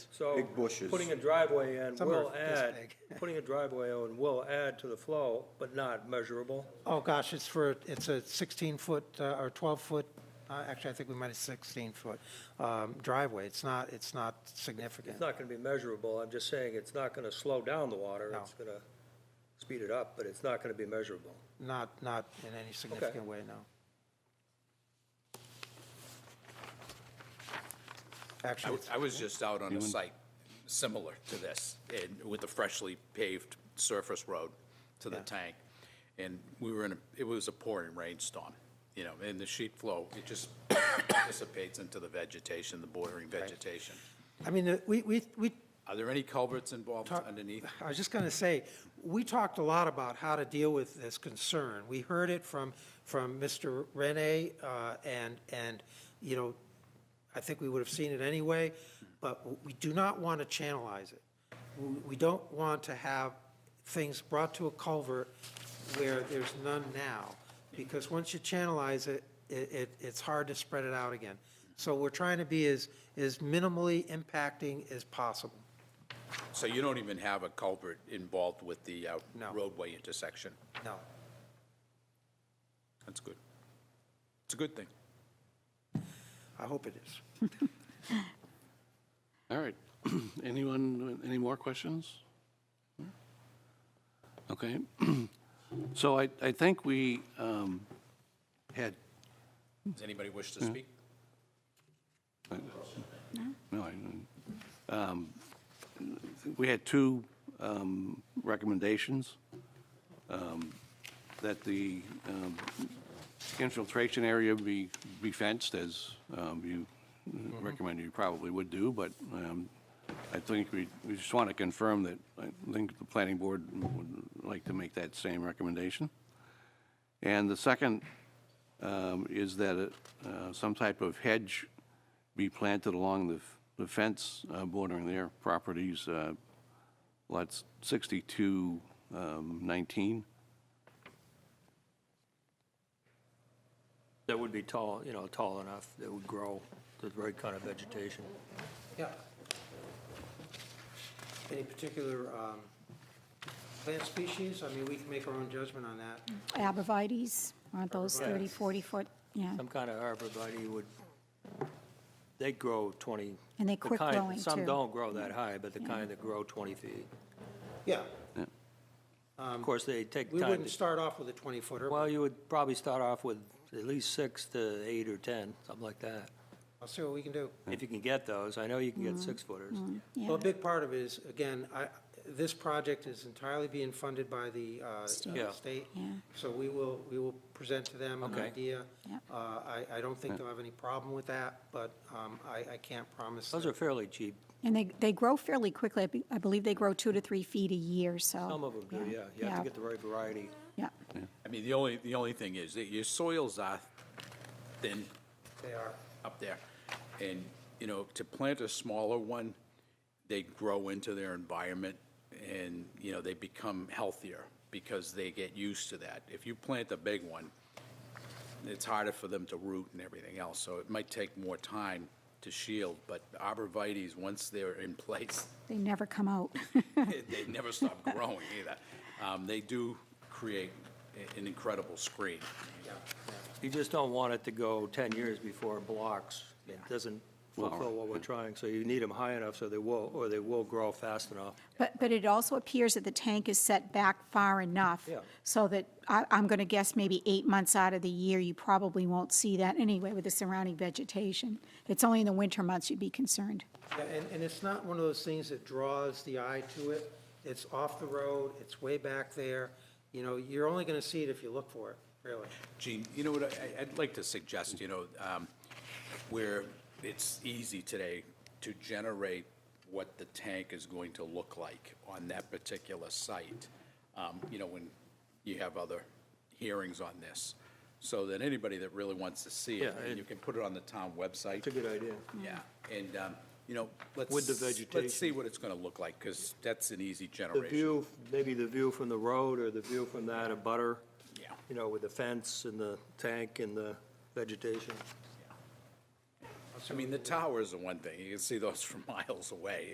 So. Big bushes. Putting a driveway in Some are will this add, big. putting a driveway in will add to the flow, but not measurable. Oh, gosh, it's for, it's a 16-foot or 12-foot, actually, I think we might have 16-foot driveway. It's not, it's not significant. It's not gonna be measurable, I'm just saying it's not gonna slow down the water, No. it's gonna speed it up, but it's not gonna be measurable. Not, not in any significant way, no. I Actually, w- I was just out on a site similar to this, and with a freshly paved surface road to the Yeah. tank. And we were in, a it was a pouring rainstorm, you know, and the sheet flow, it just dissipates into the vegetation, the bordering vegetation. I mean, uh, we, we, we Are there any culverts involved Talk- underneath? I was just going to say, we talked a lot about how to deal with this concern. We heard it from, from Mr. Rene, uh, and, and, you know, I think we would have seen it anyway, but we do not want to channelize it. We we don't want to have things brought to a culvert where there's none now, because once you channelize it, it, it- it's hard to spread it out again. So we're trying to be as, as minimally impacting as possible. So you don't even have a culvert involved with the uh, No. roadway intersection? No. That's good. It's a good thing. I hope it is. All right. Anyone, any more questions? Okay. So I, I think we um, had, Does anybody wish to speak? no, I, um, we had two um, recommendations. um, That the um, infiltration area be, be fenced as um, you recommended you probably would do, but um, I think we, we just want to confirm that, I think the planning board would like to make that same recommendation. And the second um, is that uh, some type of hedge be planted along the f- the fence uh, bordering their properties, uh, lots 62, um, 19. That would be tall, you know, tall enough, that would grow the right kind of vegetation. Yeah. Any particular um, plant species? I mean, we can make our own judgment on that. Mm. Abrevieties, aren't those 30, 40 foot? Yeah, Some kind of arborvitae would, they grow 20. And they the quick kind- growing, Some too. don't grow that high, but the kind that grow 20 feet. Yeah, Of course, they take Um, we time wouldn't to, start off with a 20-footer. well, you would probably start off with at least six to eight or 10, something like that. I'll see what we can do. If you can get those, I know you can get Mm-hmm. six footers. Well, yeah. a big part of it is, again, I, this project is entirely being funded by the uh, State. Yeah. uh, state. Yeah. So we will, we will present to them an Okay. idea. Yeah. Uh, I, I don't think they'll have any problem with that, but um, I, I can't promise. Those that- are fairly cheap. And they, they grow fairly quickly. I be- I believe they grow two to three feet a year, so. Some of them do, yeah. You have to get the right variety. Yeah, I mean, the only, the only thing is that your soils are thin, They are. up there. And, you know, to plant a smaller one, they grow into their environment and, you know, they become healthier because they get used to that. If you plant a big one, it's harder for them to root and everything else, so it might take more time to shield. But arborvitae's, once they're in place, they never come out. they never stop growing either. Um, They do create a- an incredible screen. You just don't want it to go 10 years before it blocks. It doesn't Well, fulfill what we're trying, so you need them high enough so they will, or they will grow fast enough. But, but it also appears that the tank is set back far enough. Yeah. So that, I, I'm going to guess maybe eight months out of the year, you probably won't see that anyway with the surrounding vegetation. It's only in the winter months you'd be concerned. Yeah, and, and it's not one of those things that draws the eye to it. It's off the road, it's way back there. You know, you're only going to see it if you look for it, really. Gene, you know what, I- I'd like to suggest, you know, um, where it's easy today to generate what the tank is going to look like on that particular site, um, you know, when you have other hearings on this, so that anybody that really wants to see Yeah, it, it- you can put it on the town website. It's a good idea. Yeah, and, um, you know, let's. With the Let's see vegetation. what it's going to look like, because that's an easy The generation. view, maybe the view from the road or the view from that of butter. Yeah. You know, with the fence and the tank and the vegetation. I mean, the towers are one thing, you can see those from miles away,